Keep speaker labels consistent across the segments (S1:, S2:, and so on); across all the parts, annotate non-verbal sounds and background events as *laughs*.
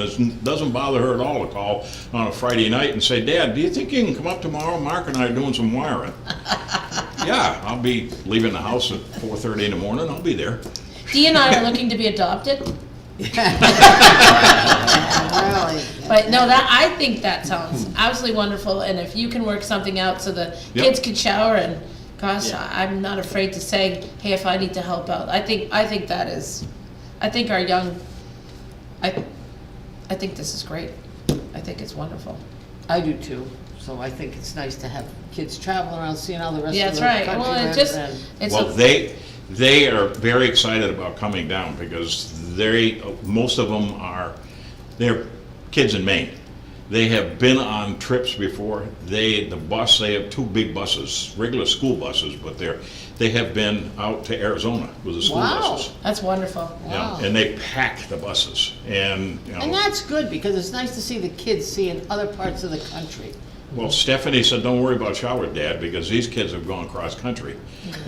S1: And It doesn't bother her at all to call on a Friday night and say, Dad, do you think you can come up tomorrow? Mark and I are doing some wiring. Yeah, I'll be leaving the house at four thirty in the morning, I'll be there.
S2: Dee and I are looking to be adopted,
S3: Really?
S2: but no, that, I think that sounds absolutely wonderful, and if you can work something out so the
S1: Hmm. Yep.
S2: kids could shower and, gosh, I- I'm not afraid to say, hey, if I need to help out, I think, I think that is, I think our young, I, I think this is great, I think it's wonderful.
S3: I do too, so I think it's nice to have kids traveling around, seeing all the rest
S2: Yeah,
S3: of
S2: that's
S3: the
S2: right,
S3: country.
S2: well, it
S3: rather
S2: just,
S3: than-
S2: it's,
S1: Well,
S2: a-
S1: they, they are very excited about coming down because they, most of them are, they're kids in Maine. They have been on trips before. They, the bus, they have two big buses, regular school buses, but they're, they have been out to Arizona with the school
S3: Wow.
S1: buses.
S2: that's wonderful,
S1: Yeah,
S3: Wow.
S1: and they pack the buses and, you
S3: And
S1: know,
S3: that's good, because it's nice to see the kids seeing other parts of the country.
S1: well, Stephanie said, don't worry about shower, Dad, because these kids have gone cross-country.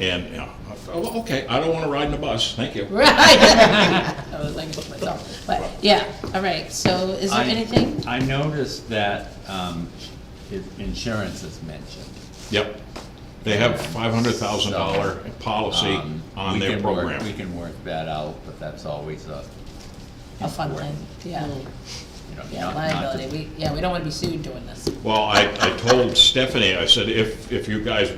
S1: And, you know, I thought, "Well, okay, I don't want to ride in a bus, thank you.
S2: right? I was like, myself, but, yeah, all right, so is there
S4: I-
S2: anything?
S4: I noticed that um, it- insurance is mentioned.
S1: Yep. They have five hundred thousand dollar policy
S4: Um,
S1: on
S4: we
S1: their
S4: can work- We
S1: program.
S4: can work that out, but that's always a,
S2: A fun thing, yeah,
S3: Mm.
S4: you know,
S2: yeah,
S4: not- not
S2: liability,
S4: to-
S2: we, yeah, we don't wanna be sued doing this.
S1: Well, I, I told Stephanie, I said, if, if you guys,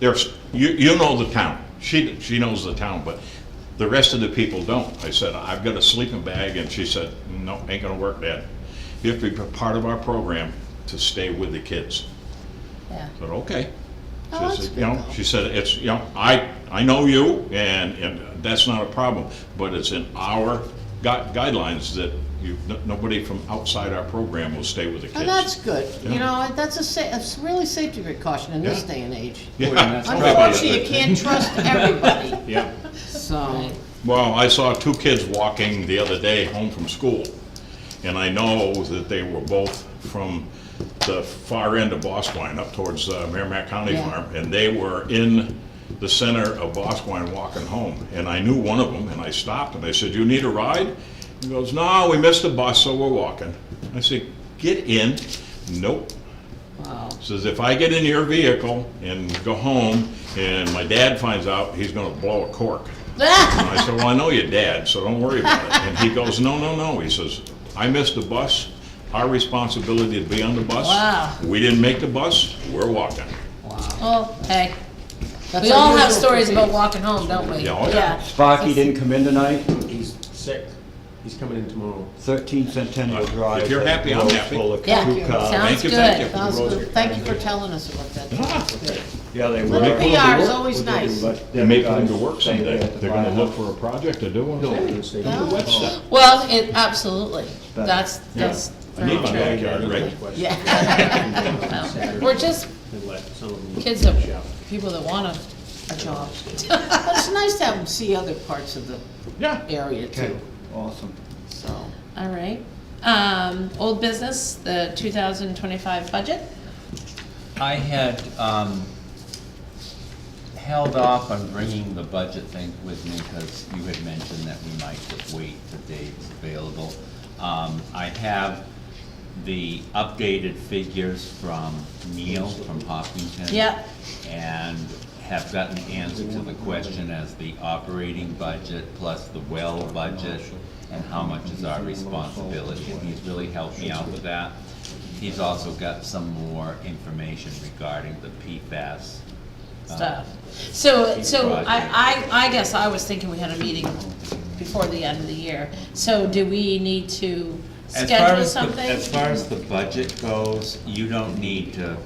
S1: there's, you, you know the town. She, she knows the town, but the rest of the people don't. I said, I've got a sleeping bag, and she said, no, ain't gonna work, Dad. You have to be part of our program to stay with the kids.
S2: Yeah,
S1: I said, okay.
S3: Oh,
S1: She
S3: that's
S1: said,
S3: good,
S1: you know,
S3: though.
S1: She said, it's, you know, I, I know you, and, and that's not a problem, but it's in our gui- guidelines that you, no- nobody from outside our program will stay with the kids.
S3: And Oh, that's good, you
S1: Yeah.
S3: know, and that's a sa, it's really safety precaution in this
S1: Yeah.
S3: day and age.
S1: Yeah.
S4: Well, that's probably a
S3: Unfortunately, you
S4: good thing.
S3: can't trust everybody,
S1: *laughs* Yeah.
S3: so,
S1: Well, I saw two kids walking the other day home from school, and I know that they were both from the far end of Bosquen up towards uh, Merrimack County
S3: Yeah.
S1: Farm, and they were in the center of Bosquen walking home, and I knew one of them, and I stopped, and I said, "You need a ride?" He goes, "No, we missed the bus, so we're walking." I said, "Get in." Nope.
S3: wow.
S1: Says, "If I get in your vehicle and go home, and my dad finds out, he's gonna blow a cork." And I said, well, I know your dad, so don't worry about it. And he goes, no, no, no. He says, I missed the bus. Our responsibility to be on the bus.
S2: Wow.
S1: We didn't make the bus. We're walking.
S2: well, hey,
S3: That's
S2: we all have
S3: unusual for
S2: stories about
S3: kids.
S2: walking home, don't we?
S1: Yeah, oh, yeah.
S5: Sparky didn't come in tonight,
S6: He's sick. He's coming in tomorrow.
S5: thirteen Centennial
S1: If
S5: Drive.
S1: you're
S5: that
S1: happy, I'm
S5: road's
S1: happy.
S5: full of
S2: Yeah,
S5: crew cars.
S2: sounds
S1: Thank you,
S2: good.
S1: thank
S3: That was good, thank you for telling us about that.
S1: Ah,
S5: Yeah, they were.
S3: Little
S5: They
S3: PR is always
S6: We'll give
S3: nice.
S6: him lunch.
S1: They may put him to work
S5: Same
S1: someday.
S5: day at the
S1: They're gonna look
S5: firehouse.
S1: for a project to do one
S6: No,
S1: day.
S6: we'll stay.
S3: Oh,
S1: Webster.
S2: Well, it, absolutely,
S5: But-
S2: that's, that's
S1: I need
S2: very
S1: my
S2: true.
S1: backyard,
S6: *laughs*
S1: right?
S2: Well,
S6: Yeah.
S2: We're just
S6: And let some of them-
S2: kids of, people that want a, a job.
S3: But it's nice to have them see other parts of the
S1: Yeah.
S3: area too,
S5: Awesome.
S3: so.
S2: All right, um, old business, the two thousand twenty-five budget,
S4: I had um, held off on bringing the budget thing with me because you had mentioned that we might just wait till Dave's available. Um, I have the updated figures from Neil from Hopkinton.
S2: Yep.
S4: And have gotten the answer to the question as the operating budget plus the well budget and how much is our responsibility. And he's really helped me out with that. He's also got some more information regarding the PFAS. uh,
S2: stuff. So, so
S4: Right.
S2: I, I, I guess I was thinking we had a meeting before the end of the year, so do we need to
S4: As far
S2: schedule
S4: as the-
S2: something?
S4: As far as the budget goes, you don't need to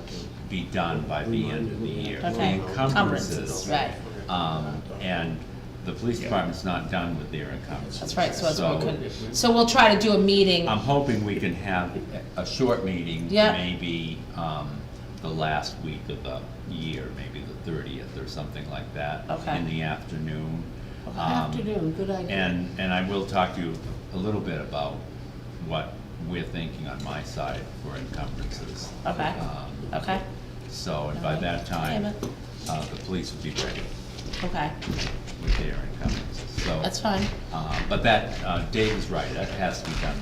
S4: be done by the end of the year. The
S2: Okay,
S4: Encumbrances.
S2: encumbrances, right.
S4: Um, and the police department's not done with their encumbrances.
S2: That's right, so that's what we couldn't, so we'll try to do a meeting,
S4: I'm hoping we can have a a short meeting,
S2: Yeah.
S4: maybe, um, the last week of the year, maybe the thirtieth or something like that.
S2: Okay.
S4: In the afternoon. Um,
S3: Afternoon, good idea.
S4: And, and I will talk to you a little bit about what we're thinking on my side for encumbrances.
S2: okay,
S4: Um,
S2: okay.
S4: So, and by that
S2: Alright.
S4: time, uh, the police will be ready.
S2: Okay,
S4: with their encumbrances, so.
S2: that's fine.
S4: Uh, but that, uh, Dave is right, that has to be done by